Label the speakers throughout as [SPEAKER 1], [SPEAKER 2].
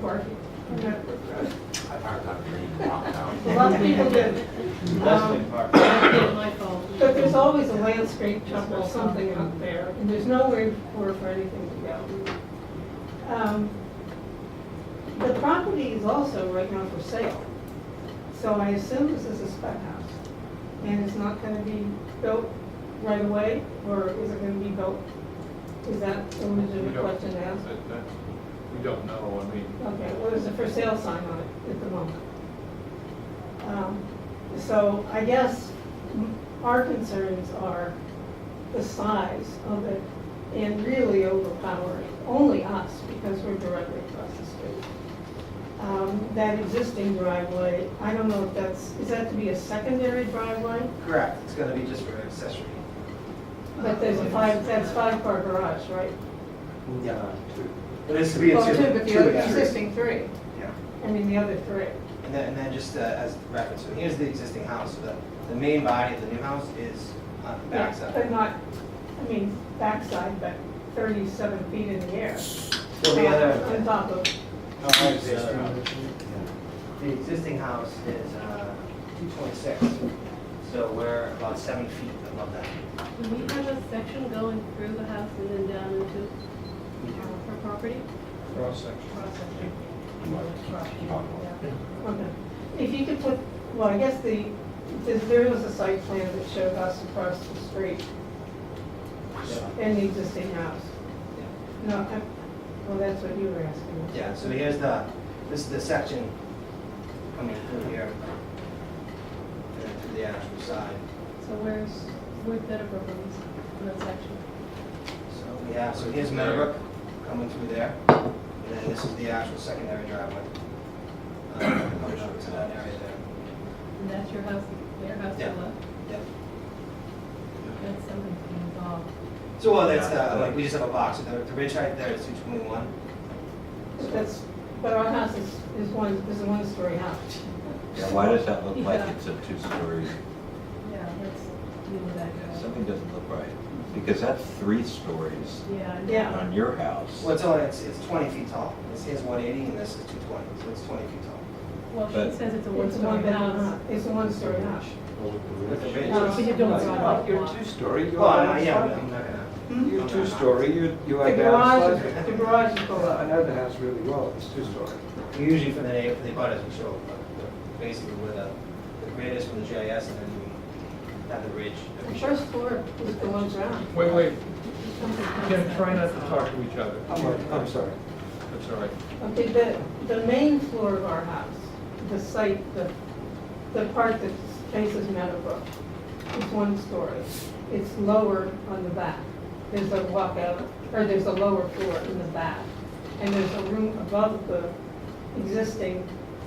[SPEAKER 1] parking on that road.
[SPEAKER 2] I parked on Green downtown.
[SPEAKER 1] A lot of people do.
[SPEAKER 3] Leslie
[SPEAKER 1] Um,
[SPEAKER 3] Park.
[SPEAKER 4] That's my fault.
[SPEAKER 1] But there's always a landscape truck or something out there, and there's nowhere for, for anything to go. Um, The property is also right now for sale, so I assume this is a spec house. And it's not gonna be built right away, or is it gonna be built? Is that a
[SPEAKER 3] We
[SPEAKER 1] legitimate
[SPEAKER 3] don't-
[SPEAKER 1] question to ask?
[SPEAKER 3] that- that- We don't know, I mean,
[SPEAKER 1] Okay, well, there's a for sale sign on it at the moment. Um, So I guess m- our concerns are the size of it and really overpowering, only us, because we're directly across the street. Um, That existing driveway, I don't know if that's, is that to be a secondary driveway?
[SPEAKER 5] Correct, it's gonna be just for accessory.
[SPEAKER 1] But there's a five, that's five car garage, right?
[SPEAKER 5] Yeah. But it's to be.
[SPEAKER 1] Well,
[SPEAKER 5] it's
[SPEAKER 1] two,
[SPEAKER 5] just
[SPEAKER 1] but
[SPEAKER 5] two
[SPEAKER 1] the other
[SPEAKER 5] accessories.
[SPEAKER 1] existing three,
[SPEAKER 5] Yeah.
[SPEAKER 1] I mean, the other three.
[SPEAKER 5] And then, and then just uh, as reference, so here's the existing house, so the, the main body of the new house is on the
[SPEAKER 1] Yeah,
[SPEAKER 5] backside.
[SPEAKER 1] But not, I mean, backside, but thirty-seven feet in the air.
[SPEAKER 5] So the
[SPEAKER 1] On
[SPEAKER 5] other,
[SPEAKER 1] top of,
[SPEAKER 5] the existing house is uh, two twenty-six, so we're about seven feet above that.
[SPEAKER 4] Do we have a section going through the house and then down into uh, her property?
[SPEAKER 3] cross section.
[SPEAKER 4] Cross section.
[SPEAKER 1] okay. If you could put, well, I guess the, there's- there was a site plan that showed us across the street and the existing house. No, I, well, that's what you were asking.
[SPEAKER 5] Yeah, so here's the, this is the section coming through here. And then through the actual side.
[SPEAKER 4] So where's, where's that properties in that section?
[SPEAKER 5] So we have, so here's Meadowbrook coming through there, and then this is the actual secondary driveway. Um, Coming up to that area there.
[SPEAKER 4] And that's your house, their house to
[SPEAKER 5] Yeah.
[SPEAKER 4] the left?
[SPEAKER 5] Yep.
[SPEAKER 4] That's something involved.
[SPEAKER 5] So, well, that's, uh, like, we just have a box, so the, the ridge height there is two twenty-one.
[SPEAKER 1] But That's, but our house is, is one, is a one-story house.
[SPEAKER 2] Yeah, why does that look like it's a two-story?
[SPEAKER 4] Yeah, let's deal with that.
[SPEAKER 2] Yeah, Something doesn't look right, because that's three stories
[SPEAKER 4] Yeah. I know.
[SPEAKER 1] Yeah.
[SPEAKER 2] on your house.
[SPEAKER 5] Well, it's only, it's, it's twenty feet tall. This is one eighty and this is two twenty, so it's twenty feet tall.
[SPEAKER 4] Well, she
[SPEAKER 2] But-
[SPEAKER 4] says it's a
[SPEAKER 1] It's a one
[SPEAKER 4] one-story house.
[SPEAKER 1] bedroom, it's a one-story house.
[SPEAKER 5] With the ridge.
[SPEAKER 4] No, she did don't
[SPEAKER 3] Well,
[SPEAKER 4] drive.
[SPEAKER 3] You're two-story, you're
[SPEAKER 5] Well,
[SPEAKER 3] on
[SPEAKER 5] I'm not- Oh,
[SPEAKER 3] a
[SPEAKER 5] yeah,
[SPEAKER 3] slab.
[SPEAKER 5] I'm not gonna.
[SPEAKER 1] Hmm?
[SPEAKER 3] You're two-story, you, you
[SPEAKER 1] The
[SPEAKER 3] have down
[SPEAKER 1] garage, the garage is below.
[SPEAKER 3] I know the house really well, it's two-story.
[SPEAKER 5] Usually for the, na- for the butters, we show uh, basically where the, the grid is from the GIS and then we have the ridge. that we
[SPEAKER 1] The
[SPEAKER 5] show.
[SPEAKER 1] first floor is below ground.
[SPEAKER 3] Wait, wait,
[SPEAKER 4] Something
[SPEAKER 3] Kim,
[SPEAKER 4] comes
[SPEAKER 3] try not
[SPEAKER 4] up.
[SPEAKER 3] to talk to each other.
[SPEAKER 6] I'm sorry.
[SPEAKER 3] That's all right.
[SPEAKER 1] Okay, the, the main floor of our house, the site, the, the part that faces Meadowbrook, is one story. It's lower on the back. There's a walkout, or there's a lower floor in the back. And there's a room above the existing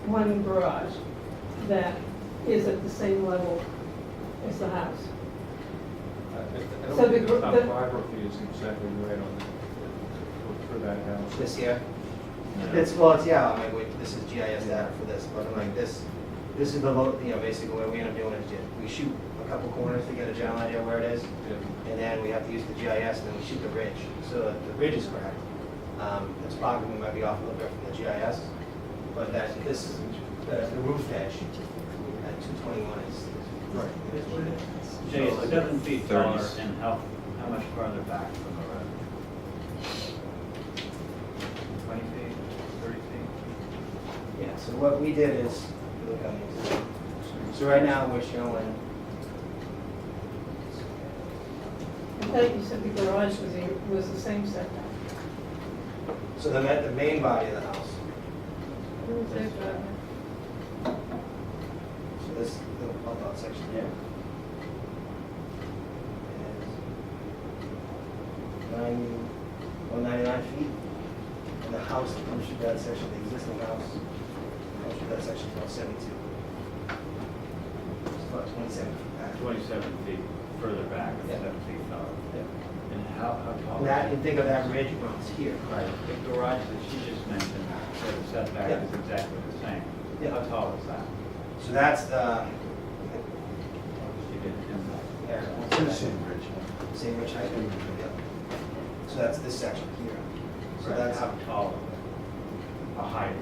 [SPEAKER 1] one garage that is at the same level as the house.
[SPEAKER 3] I- I I
[SPEAKER 1] So
[SPEAKER 3] don't
[SPEAKER 1] the
[SPEAKER 3] think
[SPEAKER 1] gr-
[SPEAKER 3] the
[SPEAKER 1] the-
[SPEAKER 3] topography is exactly right on that, for that house.
[SPEAKER 5] This here.
[SPEAKER 2] You know,
[SPEAKER 5] It's, well, it's, yeah, I mean, we- this is GIS data for this, but I'm like, this, this is the, lo- you know, basically what we end up doing is ju- we shoot a couple corners to get a general idea where it is, and then we have to use the GIS, and then we shoot the ridge, so the ridge is correct. Um, the topography might be off a little bit from the GIS, but that, this is, the the roof edge at two twenty-one is, right, it is what it is.
[SPEAKER 6] Jay, it's seven feet taller
[SPEAKER 2] Thirties.
[SPEAKER 6] and how, how much farther back from the road? Twenty feet, thirty feet?
[SPEAKER 5] Yeah, so what we did is, we look on the existing. So right now, we're showing,
[SPEAKER 1] I thought you said the garage was, the- was the same setback.
[SPEAKER 5] so the, ma- the main body of the house
[SPEAKER 4] Where's their driveway?
[SPEAKER 5] So this, the pop-out section here. is Ninety, one ninety-nine feet. And the house that comes through that section, the existing house, that comes through that section is about seventy-two. It's about twenty-seven feet back.
[SPEAKER 6] Twenty-seven feet further back, it's
[SPEAKER 5] Yeah.
[SPEAKER 6] seven feet taller.
[SPEAKER 5] Yeah.
[SPEAKER 6] And how, how tall?
[SPEAKER 5] And that, you think of that ridge runs here.
[SPEAKER 6] Right, the garage that she just mentioned, so the
[SPEAKER 5] Yeah.
[SPEAKER 6] setback is exactly the same.
[SPEAKER 5] Yeah.
[SPEAKER 6] How tall is that?
[SPEAKER 5] So that's um, the,
[SPEAKER 6] She did ten
[SPEAKER 5] yeah. Same ridge height. Yeah. So that's this section here. So
[SPEAKER 6] Right,
[SPEAKER 5] that's
[SPEAKER 6] how tall? A height.